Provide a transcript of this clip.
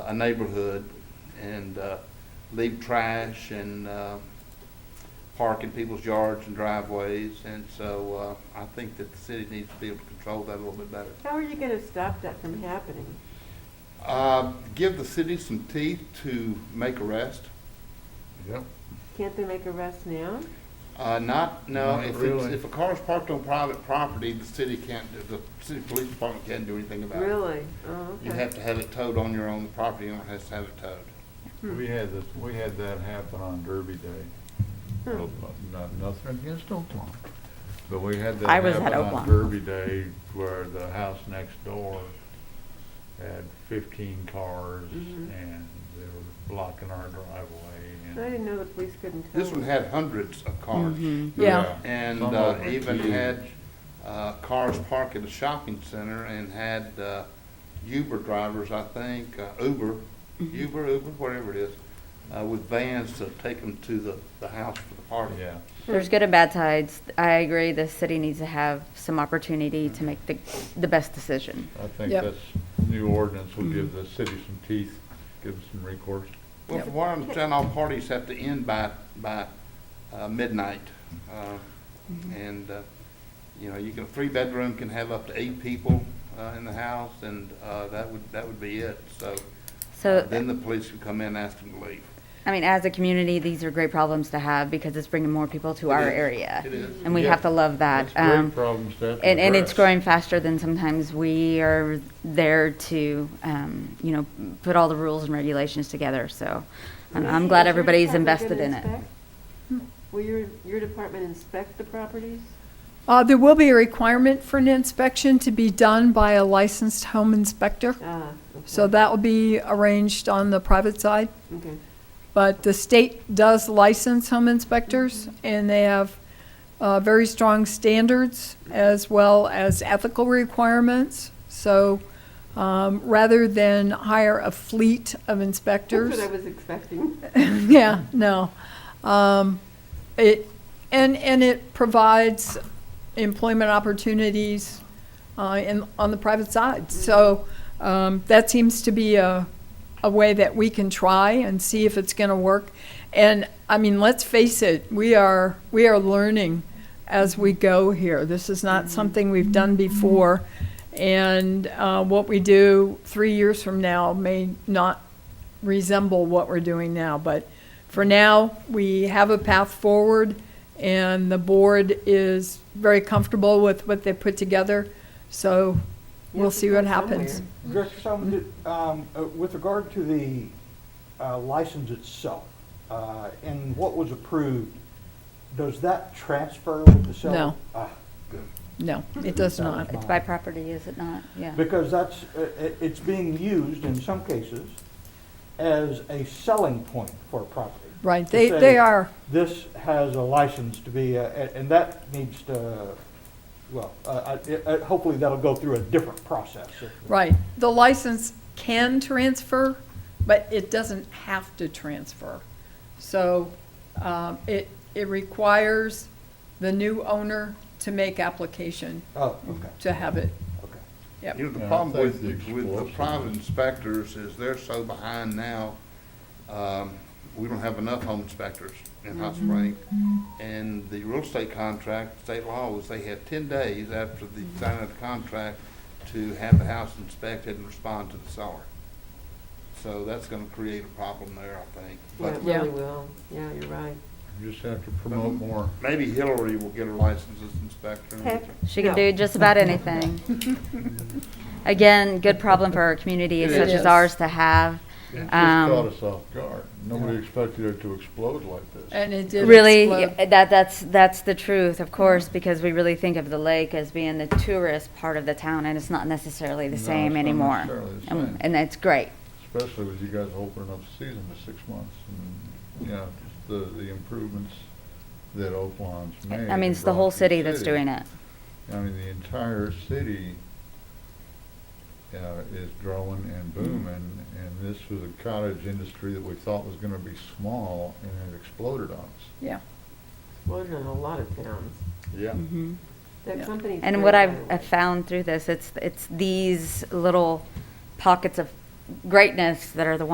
a neighborhood and uh, leave trash and uh, park in people's yards and driveways. And so uh, I think that the city needs to be able to control that a little bit better. How are you going to stop that from happening? Uh, Give the city some teeth to make arrests. Yep. Can't they make arrests now? Uh, not, no, Not if it's, really. if a car is parked on private property, the city can't, do- the city police department can't do anything about it. Really? Oh, You okay. have to have it towed on your own property, you don't have to have it towed. Hmm. We had this, we had that happen on Derby Day. Hmm. Not, nothing against Oaklawn, but we had that I was at happen on Oaklawn. Derby Day where the house next door had fifteen cars Mm-hmm. Mhm. and they were blocking our I driveway and. didn't know the police couldn't tell. This one had hundreds of cars. Yeah. And Some uh, of them were even huge. had uh, cars parked at a shopping center and had uh, Uber drivers, I think, uh, Uber, Uber, Uber, whatever it is, uh, with vans to take them to the, the house for the party. Yeah, There's good and bad sides. I agree, the city needs to have some opportunity to make the, the best decision. I think Yep. this new ordinance will Mm-hmm. give the city some teeth, give them some recourse. Well, from what I understand, all parties have to end by, by uh, midnight. uh, And, uh, you know, you can, a three-bedroom can have up to eight people uh, in the house, and uh, that would, that would be it. So uh, So, then the police would come in and ask them to leave. I mean, as a community, these are great problems to have because it's bringing more people to our It is. area. It is. And we Yeah. have to love that. That's great Um, problems to have to And, and it's address. growing faster than sometimes we are there to, um, you know, put all the rules and regulations together, so I'm, I'm glad Is your everybody's department invested gonna in it. inspect? Will your, your department inspect the properties? Uh, there will be a requirement for an inspection to be done by a licensed home inspector. Ah, okay. So that will be arranged on the private side. Okay. But the state does license home inspectors, and they have uh, very strong standards as well as ethical requirements. So um, rather than hire a fleet of inspectors. That's what I was expecting. Yeah, no. Um, it, and, and it provides employment opportunities, uh, in, on the private side. So, um, that seems to be a, a way that we can try and see if it's gonna work. And, I mean, let's face it, we are, we are learning as we go here. This is not something we've done before. And, uh, what we do three years from now may not resemble what we're doing now. But for now, we have a path forward, and the board is very comfortable with what they put together. So You we'll have to see what start happens. somewhere. Director Solomon, did, um, uh, with regard to the uh, license itself, uh, and what was approved, does that transfer with the seller? No. Ah, No, it does That not. was It's by property, is it not? Yeah. Because that's, uh, it- it's being used in some cases as a selling point for a property. Right, To they, say, they are, This has a license to be, uh, a- and that needs to, well, uh, I- it- uh, hopefully that'll go through a different process. right. The license can transfer, but it doesn't have to transfer. So um, it, it requires the new owner to make application Oh, okay, to have it, okay. yep. You know, Yeah, the I problem think with, the with the explosive- private inspectors is they're so behind now, um, we don't have enough home inspectors in Hot Mm-hmm. Spring. And the real estate contract, state law was they had ten days after the Mm-hmm. signing of the contract to have the house inspected and respond to the seller. So that's gonna create a problem there, I think. Yeah, But it Yeah. really will. Yeah, you're right. You Just have to Um, promote more. maybe Hillary will get her license as inspector. Heck, She can no. do just about anything. Again, good problem for our community It such is. as ours to have. It just Um, caught us off guard. Nobody expected it to explode like this. And it did Really, explode. yeah, that, that's, that's the truth, of course, because we really think of the lake as being the tourist part of the town, and it's not necessarily the No, same it's not anymore. necessarily the And- same. And that's great. especially with you guys opening up the season to six months and, you know, just the, the improvements that Oaklawn's made. I mean, it's the brought whole to the city that's doing it. I mean, the entire city, uh, is growing and Mm-hmm. booming, and this was a cottage industry that we thought was gonna be small, and it exploded on us. Yeah. Explosion in a lot of towns. Yeah. That Yeah. company's. Mm-hmm. And great, what by I've the way. I've found through this, it's, it's these little pockets of greatness that are the ones